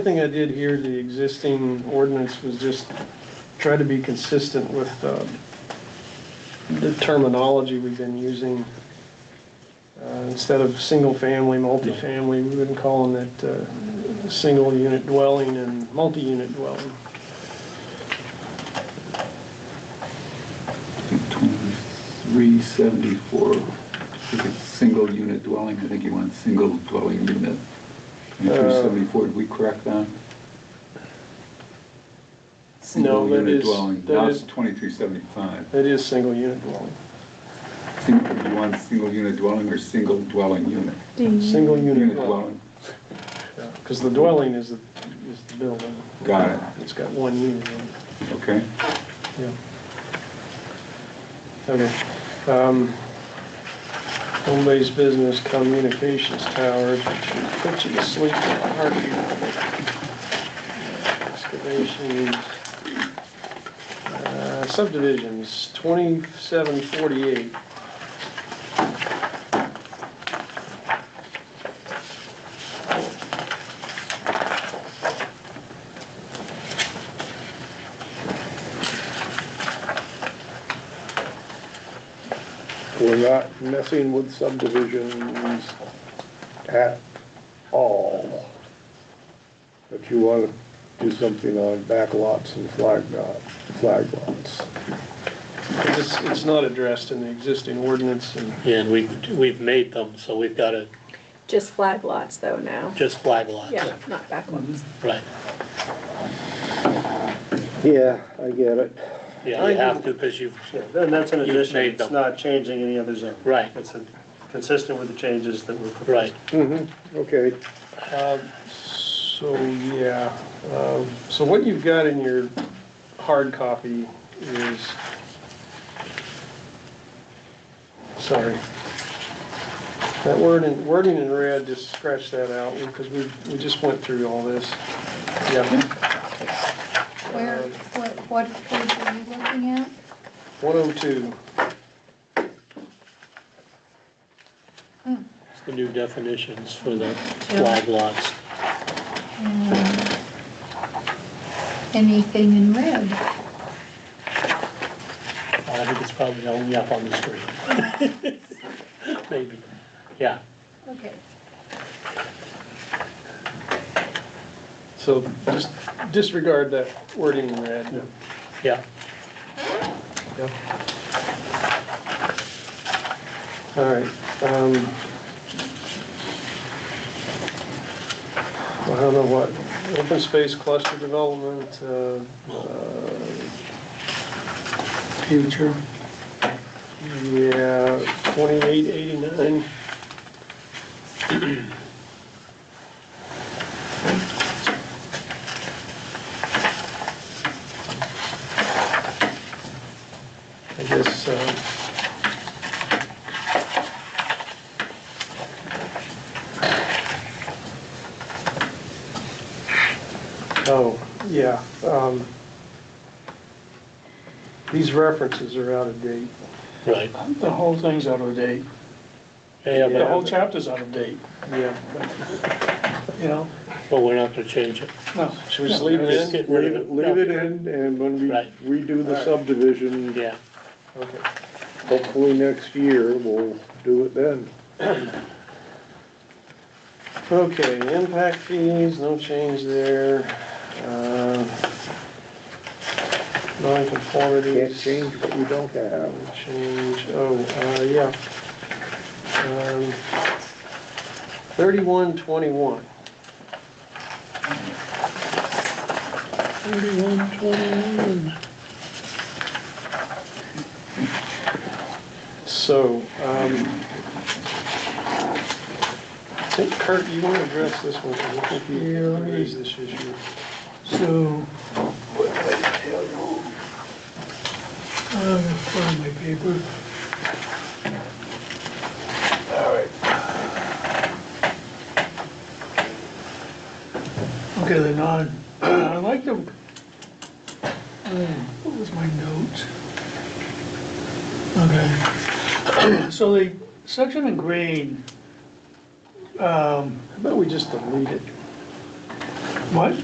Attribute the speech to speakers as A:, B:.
A: thing I did here, the existing ordinance was just try to be consistent with uh, the terminology we've been using. Uh, Instead of single-family, multifamily, we've been calling it uh, single-unit dwelling and multi-unit dwelling.
B: Twenty-three seventy-four, if it's single unit dwelling, I think you want single dwelling unit.
A: Um,
B: Twenty-three seventy-four, did we correct that? Single
A: that
B: unit
A: is-
B: dwelling,
A: that
B: Now
A: is-
B: it's twenty-three seventy-five.
A: It is single-unit dwelling,
B: Single, you want single unit dwelling or single dwelling unit?
A: single-unit
B: Unit
A: dwelling.
B: dwelling,
A: Because the dwelling is the, is the building.
B: got
A: It's got one unit in it.
B: it, okay?
A: Yeah. Okay. Um, Home based business communications towers, which should put you to sleep in a heartbeat. Excavations. Uh, Subdivisions, 2748.
C: We're not messing with subdivisions at all. But you wanna do something on back lots and flag lot, flag lots.
A: It's, it's not addressed in the existing ordinance and
D: Yeah, and we, we've made them, so we've got to
E: Just flag lots though now.
D: just flag lots,
E: Yeah, not back ones.
D: right?
C: Yeah, I get it.
D: Yeah, you have to, because you've,
F: Yeah, And that's an
D: You've
F: addition,
D: made
F: it's
D: them.
F: not changing any other zone.
D: Right.
F: It's a- consistent with the changes that were
D: right,
F: proposed.
C: Okay,
A: Um, So, yeah, um, so what you've got in your hard copy is, sorry. That wording, wording in red, just scratch that out, because we, we just went through all this. Yeah,
G: Where, what, what page are you looking at?
A: 102,
G: Hmm.
D: it's the new definitions for the flag lots.
G: And Anything in red?
D: I think it's probably only up on the screen. Maybe, yeah,
G: Okay.
A: so just disregard that wording in red.
D: yeah.
A: Yeah. All right. um, I don't know what, open space cluster development, uh,
B: Future.
A: yeah, 2889. I guess, um, Oh, yeah. um, These references are out of date.
D: Right.
H: The whole thing's out of date.
D: Yeah,
H: The whole
D: but,
H: chapter's out of date,
A: Yeah.
H: you know?
D: but we're not going to change it.
H: No.
A: Should we just leave it
D: Just
A: in?
D: get rid
C: leave
D: of
C: it, leave
D: it.
C: it in, and when we
D: Right.
C: redo the subdivision,
D: Yeah,
A: Okay.
C: hopefully next year, we'll do it then.
A: Okay, impact fees, no change there. Um,
C: Can't
A: Non-conformities.
C: change what we don't have.
A: Change, oh, uh, yeah. Um, 3121.
D: thirty-one, twenty-one.
A: So, um, I think Kurt, you want to address this one, because I think you raised this issue.
H: So, what did I tell you? Uh, find my paper. All right. Okay, then on, I like to, uh, what was my note? Okay. So the section in green, um,
A: How about we just delete it?
H: What?